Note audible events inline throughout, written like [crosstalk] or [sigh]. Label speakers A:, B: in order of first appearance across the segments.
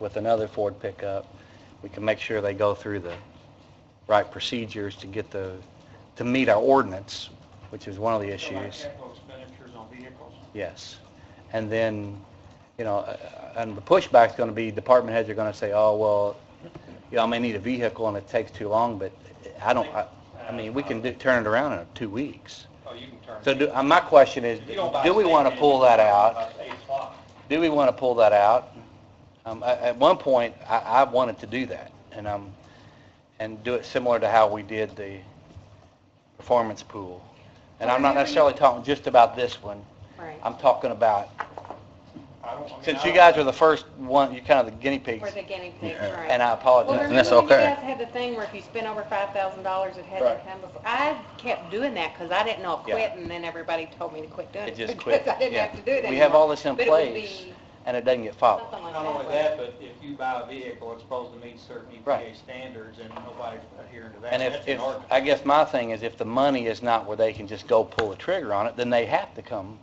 A: with another Ford pickup, we can make sure they go through the right procedures to get the, to meet our ordinance, which is one of the
B: So like
A: issues.
B: Capital expenditures on vehicles.
A: Yes. And then, you know, uh, and the pushback's going to be, department heads are going to say, oh, well, you know, I may need a vehicle and it takes too long, but I don't, I, I mean, we can do- turn it around in two weeks.
B: Oh, you can turn.
A: So do, uh, my question is,
B: If you don't buy
A: do we
B: state
A: want to
B: aid,
A: pull
B: you
A: that
B: can
A: out?
B: buy state law.
A: do we want to pull that out? Um, I- At one point, I- I wanted to do that, and um, and do it similar to how we did the performance pool. And I'm not necessarily talking just about this one.
C: Right.
A: I'm talking about,
B: I don't- I mean,
A: since
B: I
A: you
B: don't-
A: guys are the first one, you're kind of the guinea pigs,
C: We're the guinea pigs,
D: Yeah.
C: right.
A: and I
C: Well,
A: apologize.
C: remember
D: And that's
C: when you
D: okay.
C: guys had the thing where if you spent over five thousand dollars, it had to
A: Right.
C: come before? I kept doing that because I didn't know
A: Yeah.
C: quit, and then everybody told me to quit doing
A: It
C: it. [laughs]
A: just
C: because
A: quit.
C: I didn't
A: Yeah.
C: have to do it anymore.
A: We have all this in
C: But it would
A: place, Oh.
C: be
A: and it doesn't get followed.
C: Something like
B: Not only that,
C: that.
B: but if you buy a vehicle, it's supposed to meet certain EPA
A: Right.
B: standards and nobody's adhering to that.
A: And
B: That's
A: if,
B: an
A: if,
B: ordinance.
A: I guess my thing is if the money is not where they can just go pull the trigger on it, then they have to come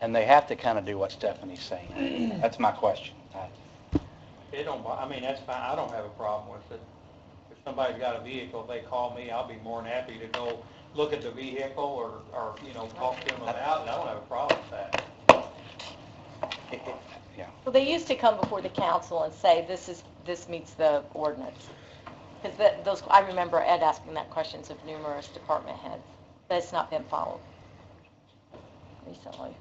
A: and they have to kind of do what Stephanie's saying. That's my question. I-
B: It don't, bo- I mean, that's fine, I don't have a problem with it. If somebody's got a vehicle, they call me, I'll be more than happy to go look at the vehicle or, or, you know, talk to them about it, I don't have a problem with that.
A: it- it- Yeah,
E: Well, they used to come before the council and say, this is, this meets the ordinance. Because those, I remember Ed asking that questions of numerous department heads, but it's not been followed recently.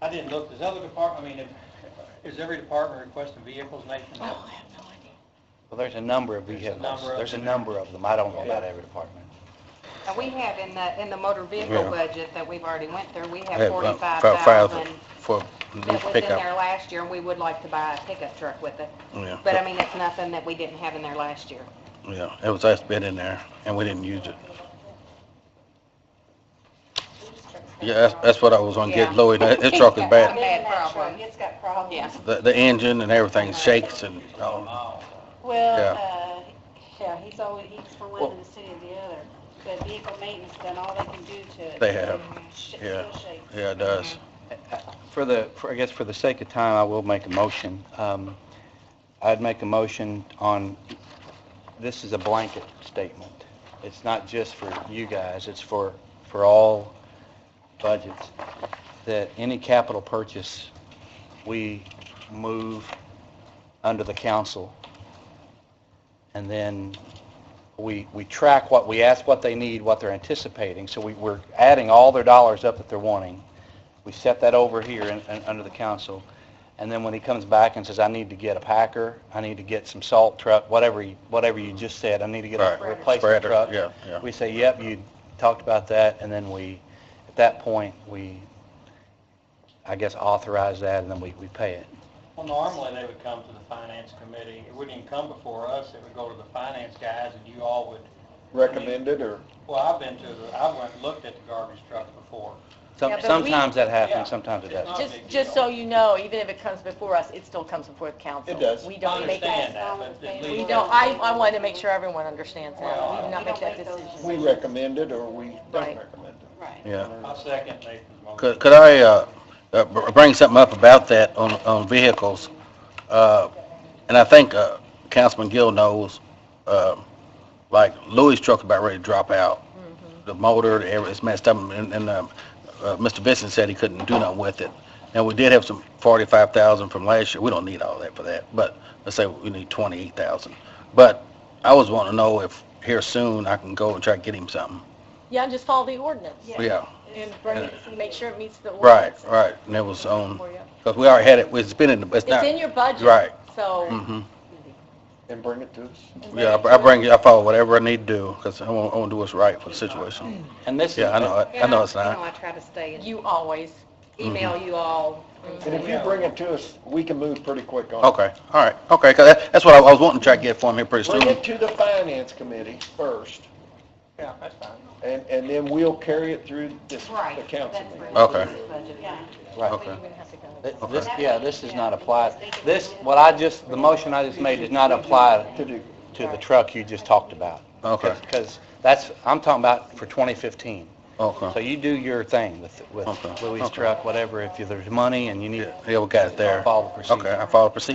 B: I didn't look, does other department, I mean, if- is every department requesting vehicles nationwide?
E: I have no idea.
A: well, there's a number of
B: There's a
A: vehicles.
B: number of
A: There's a
B: them.
A: number of them. I don't know about
B: Yeah.
A: every department.
C: And we have in the, in the motor vehicle
D: Yeah.
C: budget that we've already went through, we
D: I
C: have
D: had about
C: forty-five
D: five
C: thousand
D: For new
C: that was in there
D: pickup.
C: last year, and we would like to buy a pickup truck with it.
D: Yeah.
C: But I mean, it's nothing that we didn't have in there last year.
D: Yeah, it was us bid in there, and we didn't use it. Yeah, that's, that's what I was on, get
C: Yeah.
D: Lloyd, that- his truck
C: [laughs]
D: is bad.
C: Bad problem. It's got problems. Yeah.
D: The, the engine and everything shakes and, oh,
F: Well, uh, yeah, he's always, he's for one and the city of the other. But vehicle maintenance done all they can do to it.
D: They have,
F: Sh-
D: yeah.
F: still shakes.
D: yeah, it does.
A: For the, for- I guess for the sake of time, I will make a motion. Um, I'd make a motion on, this is a blanket statement. It's not just for you guys, it's for, for all budgets, that any capital purchase, we move under the council. And then we, we track what, we ask what they need, what they're anticipating. So we, we're adding all their dollars up that they're wanting. We set that over here in, in- under the council. And then when he comes back and says, I need to get a packer, I need to get some salt truck, whatever, you- whatever you just said, I need to get a
D: Right.
A: replacement
D: Spreader,
A: truck.
D: yeah, yeah.
A: We say, yep, you talked about that, and then we, at that point, we, I guess, authorize that, and then we, we pay it.
B: Well, normally they would come to the finance committee, it wouldn't even come before us, it would go to the finance guys and you all would.
G: recommended or?
B: Well, I've been to the, I went and looked at the garbage truck before.
A: Some-
E: Yeah, but we-
A: Sometimes that
B: Yeah.
A: happens, sometimes it doesn't.
E: Just, just so you know, even if it comes before us, it still comes before the council.
G: It does.
E: We
B: I
E: don't make,
B: understand that, but at
E: we
B: least.
E: don't, I, I wanted to make sure everyone understands that. We do not
F: We don't
E: make that
F: make those
E: decision.
G: We recommended or we don't
E: Right.
G: recommend it?
F: Right.
D: Yeah.
B: I second Nathan's motion.
D: Could, could I, uh, uh, br- bring something up about that on, on vehicles? Uh, and I think, uh, Councilman Gill knows, uh, like Louis' truck about ready to drop out. The motor, the air, it's messed up, and, and, um, uh, Mr. Vincent said he couldn't do nothing with it. Now, we did have some forty-five thousand from last year, we don't need all that for that, but let's say we need twenty-eight thousand. But I was wanting to know if here soon I can go and try to get him something.
E: Yeah, just follow the ordinance
D: Yeah,
E: and bring it, make sure it meets the
D: right,
E: ordinance.
D: right, and it was on.
E: for you.
D: Because we already had it, it's been in, the it's
E: It's
D: not,
E: in your budget.
D: Right.
E: So.
D: hmm
G: And bring it to us?
D: yeah, I I bring, you- I follow whatever I need to do, because I want, I want to do what's right for the situation.
A: And this,
D: Yeah, I know, I- I know it's
C: You know,
D: not. Mm-hmm.
C: I try to stay and
E: You always.
C: email you all.
G: And if you bring it to us, we can move pretty quick on it.
D: Okay, all right, okay, 'cause that- that's what I I was wanting to try to get for him here pretty
G: Bring
D: soon.
G: it to the finance committee first,
B: Yeah, that's fine.
G: and, and then we'll carry it through this,
C: Right.
G: the council
C: That's
G: meeting.
C: right.
D: Okay.
F: Yeah.
A: right.
D: Okay.
A: Th-
D: Okay.
A: This, yeah, this is not applied. This, what I just, the motion I just made does not apply
G: To do,
A: to the truck you just talked about.
D: Okay.
A: Because that's, I'm talking about for 2015.
D: Okay,
A: So you do your thing with, with
D: Uh-huh. Okay.
A: Louis'
D: Okay.
A: truck, whatever, if you- there's money and you need.
D: yeah, we got it there.
A: Follow the procedure.
D: Okay, I follow procedure.